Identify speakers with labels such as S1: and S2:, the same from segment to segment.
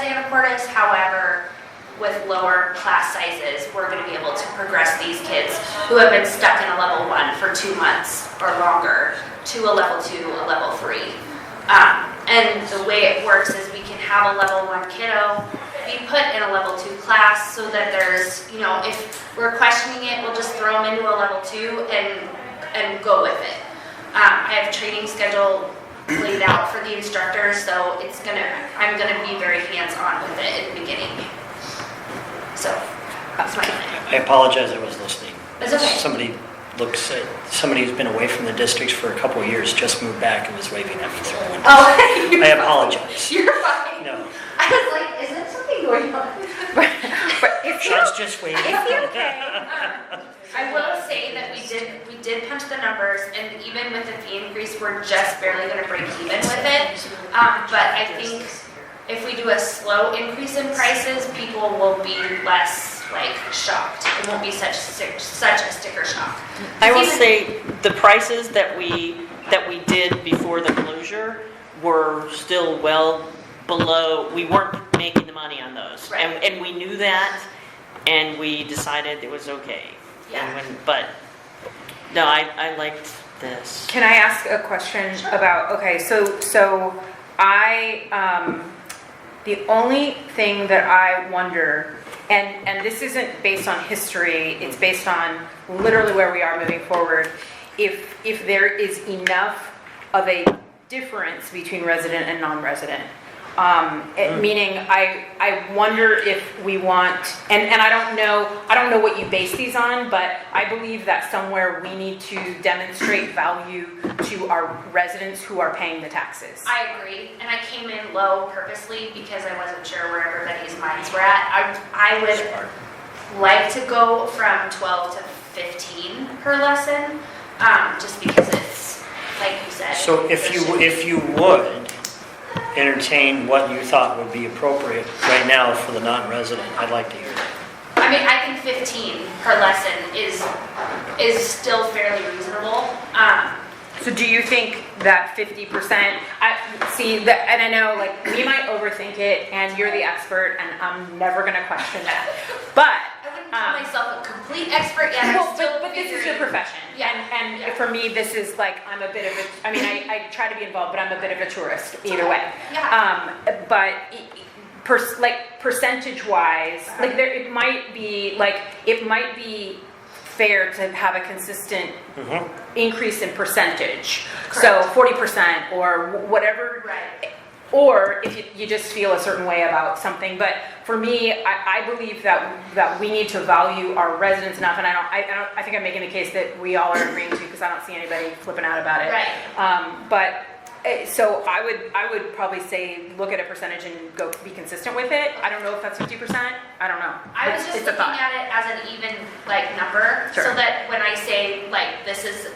S1: importance. However, with lower class sizes, we're going to be able to progress these kids who have been stuck in a level one for two months or longer to a level two, a level three. Um, and the way it works is we can have a level one kiddo be put in a level two class so that there's, you know, if we're questioning it, we'll just throw them into a level two and, and go with it. Um, I have training schedule laid out for the instructors, so it's gonna, I'm gonna be very hands-on with it in the beginning. So, that's my plan.
S2: I apologize, I was listening.
S1: It's okay.
S2: Somebody looks, at- somebody who's been away from the districts for a couple of years just moved back and was waving at me through the window.
S1: Oh,
S2: I apologize.
S1: you're fine.
S2: No,
S1: I was like, is there something going on?
S2: Shad's just waving.
S1: I will say that we did, we did punch the numbers, and even with the fee increase, we're just barely gonna break even with it. Um, but I think if we do a slow increase in prices, people will be less like shocked. It won't be such, stick- such a sticker shock.
S3: I will
S1: Even-
S3: say, the prices that we, that we did before the closure were still well below, we weren't making the money on those. And,
S1: Right.
S3: and we knew that, and we decided it was okay. And
S1: Yeah.
S3: when- But, no, I, I liked this.
S4: Can I ask a question about, okay, so, so I, um, the only thing that I wonder, and, and this isn't based on history, it's based on literally where we are moving forward, if, if there is enough of a difference between resident and non-resident. Um, it- meaning, I, I wonder if we want, and, and I don't know, I don't know what you base these on, but I believe that somewhere we need to demonstrate value to our residents who are paying the taxes.
S1: I agree, and I came in low purposely because I wasn't sure where everybody's minds were at. I, I would like to go from twelve to fifteen per lesson, um, just because it's, like you said.
S2: So if you, if you would entertain what you thought would be appropriate right now for the non-resident, I'd like to hear that.
S1: I mean, I think fifteen per lesson is, is still fairly reasonable. Um,
S4: So do you think that fifty percent, I, see, that, and I know, like, we might overthink it, and you're the expert, and I'm never gonna question that, but.
S1: I wouldn't
S4: um,
S1: call myself a complete expert yet,
S4: Well,
S1: I'm still
S4: but, but this is your
S1: figuring-
S4: profession,
S1: Yeah.
S4: and,
S1: Yeah.
S4: and for me, this is like, I'm a bit of a, I mean, I, I try to be involved, but I'm a bit of a tourist, either way.
S1: Yeah.
S4: Um, but, e- e- per, like, percentage-wise,
S1: Uh-huh.
S4: like, there, it might be, like, it might be fair to have a consistent
S2: Mhm.
S4: increase in percentage. So forty percent or wh- whatever.
S1: Right.
S4: Or if you, you just feel a certain way about something, but for me, I, I believe that, that we need to value our residents enough, and I don't, I, I don't, I think I'm making the case that we all are agreeing to, because I don't see anybody flipping out about it.
S1: Right.
S4: Um, but, eh, so I would, I would probably say, look at a percentage and go, be consistent with it, I don't know if that's fifty percent, I don't know.
S1: I was
S4: It's-
S1: just
S4: it's a
S1: looking
S4: thought.
S1: at it as an even like number, so
S4: Sure.
S1: that when I say like this is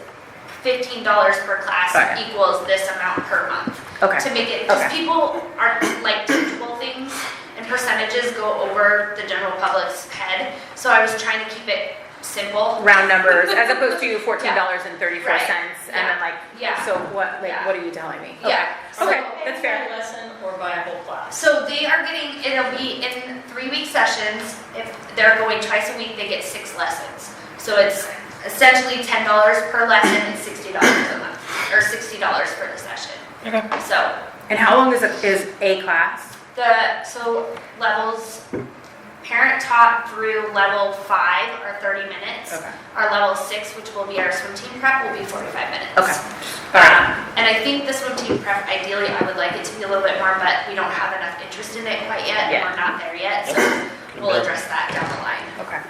S1: fifteen dollars per class
S4: Got it.
S1: equals this amount per month.
S4: Okay.
S1: To make it, because
S4: Okay.
S1: people are like tangible things and percentages go over the general public's head, so I was trying to keep it simple.
S4: round numbers as opposed to fourteen dollars and thirty-four cents, and then like,
S1: Yeah.
S4: so what, like,
S1: Yeah.
S4: what are you telling me? Okay.
S1: Yeah. So-
S4: Okay, that's fair.
S5: lesson or by a whole class?
S1: So they are getting, it'll be in three-week sessions, if they're going twice a week, they get six lessons. So it's essentially ten dollars per lesson and sixty dollars a month, or sixty dollars for the session. Okay. So,
S4: And how long is a, is a class?
S1: the, so levels, parent taught through level five are thirty minutes.
S4: Okay.
S1: Our level six, which will be our swim team prep, will be forty-five minutes.
S4: Okay.
S1: Um, And I think this one team prep, ideally, I would like it to be a little bit more, but we don't have enough interest in it quite yet, and
S4: Yeah.
S1: we're not there yet, so we'll address that down the line.
S4: Okay.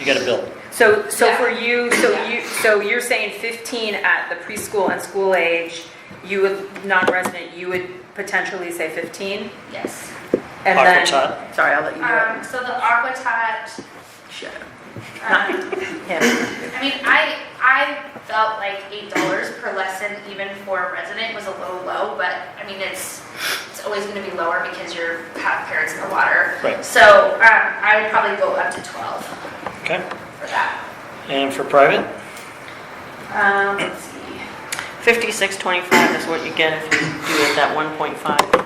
S2: You got to build.
S4: So, so
S1: Yeah.
S4: for you, so
S1: Yeah.
S4: you, so you're saying fifteen at the preschool and school age, you would, non-resident, you would potentially say fifteen?
S1: Yes.
S4: And
S2: Aqua
S4: then,
S2: tot.
S4: sorry, I'll let you do
S1: Um, so the aqua tot,
S4: it. Shut up.
S1: um,
S4: Yeah.
S1: I mean, I, I felt like eight dollars per lesson, even for a resident, was a little low, but, I mean, it's, it's always gonna be lower because you're half parents in the water.
S2: Right.
S1: So, um, I would probably go up to twelve
S2: Okay.
S1: for that.
S2: And for private?
S1: Um, let's see.
S3: 5625 is what you get if you do it that 1.5.